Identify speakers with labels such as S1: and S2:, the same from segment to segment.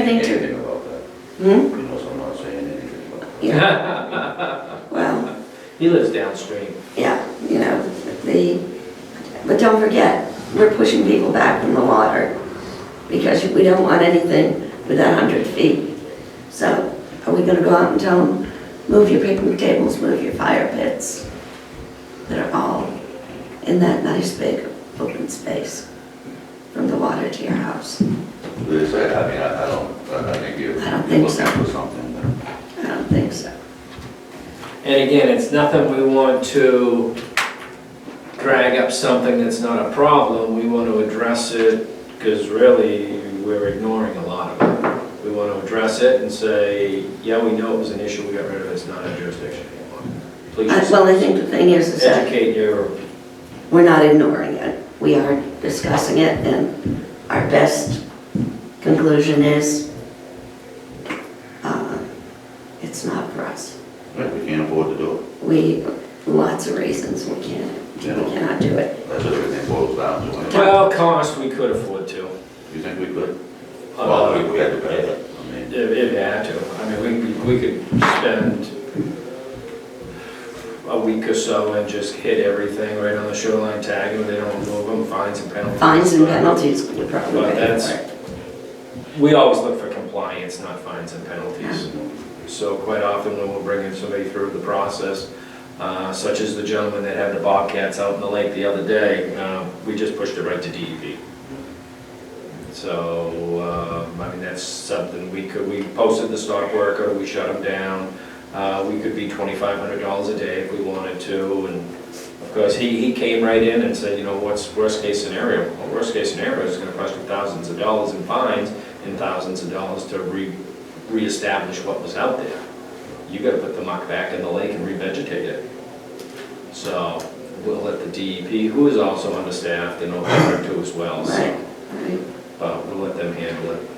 S1: I think too.
S2: anything about that.
S1: Hmm?
S2: He knows I'm not saying anything about that.
S1: Yeah, well,
S3: He lives downstream.
S1: yeah, you know, the, but don't forget, we're pushing people back from the water because we don't want anything with that hundred feet. So are we gonna go out and tell them, move your picnic tables, move your fire pits that are all in that nice big open space from the water to your house?
S2: They say, I mean, I I don't, I I think you're
S1: I don't
S2: you're
S1: think so.
S2: looking for something there.
S1: I don't think so.
S3: And again, it's nothing we want to drag up something that's not a problem. We want to address it because really, we're ignoring a lot of it. We want to address it and say, yeah, we know it was an issue, we got rid of it, it's not a jurisdiction anymore.
S1: I-
S3: Please
S1: Well, I think the thing is, is that
S3: educate your,
S1: we're not ignoring it. We are discussing it, and our best conclusion is uh, it's not for us.
S2: Right, we can't afford to do it.
S1: We, lots of reasons we can't, we cannot do it.
S2: That's what everything boils down to. anyway.
S3: well, cost we could afford to.
S2: You think we could? Well,
S3: Uh,
S2: we- we had to pay it. I mean,
S3: If if you had to, I mean, we, we could spend a week or so and just hit everything right on the shoreline tag, and if they don't move them, fines and penalties.
S1: Fines and penalties would probably
S3: Well,
S1: be
S3: that's-
S1: it.
S3: We always look for compliance, not fines and penalties. So quite often when we're bringing somebody through the process, uh, such as the gentleman that had the bobcats out in the lake the other day, uh, we just pushed it right to DEP. So, um, I mean, that's something we could, we posted the stock worker, we shut him down. Uh, We could be twenty-five hundred dollars a day if we wanted to, and of course, he, he came right in and said, you know, what's worst-case scenario? Well, worst-case scenario is gonna cost you thousands of dollars in fines and thousands of dollars to re, reestablish what was out there. You gotta put the muck back in the lake and revegetate it. So, we'll let the DEP, who is also understaffed and overworked too as well,
S1: Right,
S3: so,
S1: right.
S3: but we'll let them handle it.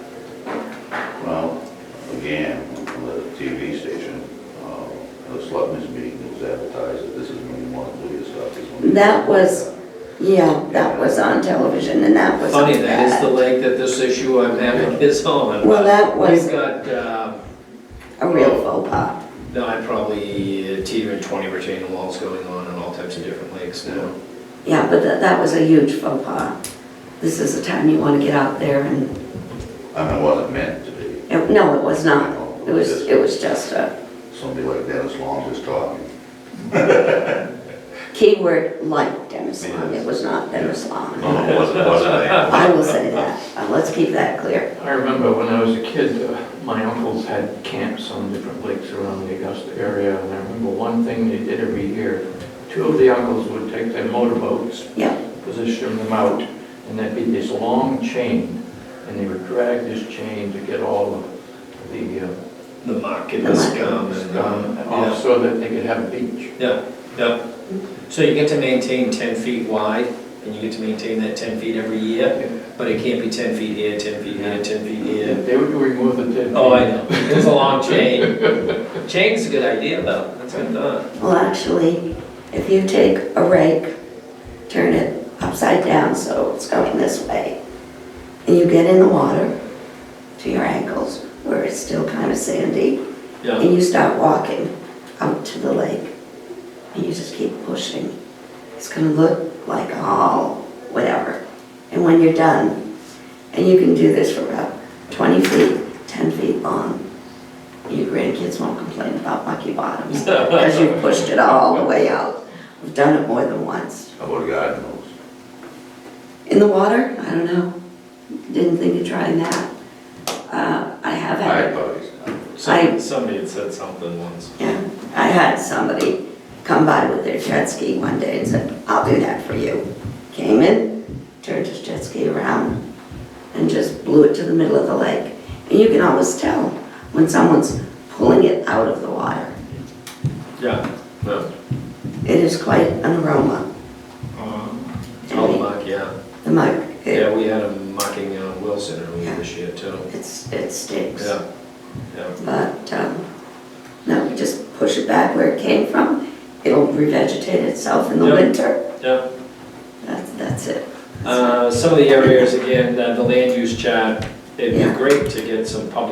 S2: Well, again, on the TV station, uh, the Slutman's meeting was advertised that this is when you want to do your stuff. this is when you-
S1: That was- Yeah, that was on television, and that was
S3: Funny, that is the
S1: bad.
S3: lake that this issue I'm having is on.
S1: Well, that was-
S3: We've got, uh,
S1: A real faux pas.
S3: No, I'd probably uh, teeter at 20 retaining walls going on in all types of different lakes now.
S1: Yeah, but that, that was a huge faux pas. This is the time you want to get out there and
S2: I mean, it wasn't meant to be.
S1: It- No, it was not. It was, it was just a
S2: Somebody like Dennis Long was talking.
S1: keyword like Dennis Long. It was not Dennis
S2: No,
S1: Long.
S2: no, it wasn't, it wasn't that.
S1: I will say that. Uh, Let's keep that clear.
S4: I remember when I was a kid, uh, my uncles had camps on different lakes around the Augusta area, and I remember one thing they did every year. Two of the uncles would take their motorboats,
S1: Yeah,
S4: position them out, and there'd be this long chain, and they would drag this chain to get all of the uh,
S3: The muck and
S1: The
S3: the
S1: muck.
S3: scum and...
S4: scum off
S3: Yeah,
S4: so that they could have a beach.
S3: Yeah, yeah. So you get to maintain 10 feet wide, and you get to maintain that 10 feet every year, but it can't be 10 feet here, 10 feet here, 10 feet here.
S4: They would remove the tin.
S3: Oh, I know, it's a long chain. Chain's a good idea, though, that's good thought.
S1: well, actually, if you take a rake, turn it upside down so it's going this way, and you get in the water to your ankles where it's still kind of sandy,
S3: Yeah,
S1: and you start walking out to the lake, and you just keep pushing. It's gonna look like a hall, whatever. And when you're done, and you can do this for about 20 feet, 10 feet long, your grandkids won't complain about mucky bottoms because you pushed it all the way out. I've done it more than once.
S2: How about a garden hose?
S1: In the water, I don't know. Didn't think of trying that. Uh, I have
S2: I
S1: had.
S2: had buddies.
S1: I-
S3: Some- somebody had said something once.
S1: Yeah, I had somebody come by with their jet ski one day and said, I'll do that for you. Came in, turned his jet ski around, and just blew it to the middle of the lake. And you can always tell when someone's pulling it out of the water.
S3: Yeah, no.
S1: It is quite an aroma,
S3: All muck, yeah.
S1: the muck. It-
S3: Um, Yeah, we had him mocking uh, Wilson earlier
S1: Yeah.
S3: this year, too.
S1: It's, it stinks.
S3: Yeah, yeah.
S1: But, um, no, we just push it back where it came from. It'll revegetate itself in the
S3: Yeah.
S1: winter.
S3: Yeah.
S1: That's, that's it.
S3: Uh, Some of the areas, again, uh, the land use chart, it'd
S1: Yeah.
S3: be great to get some public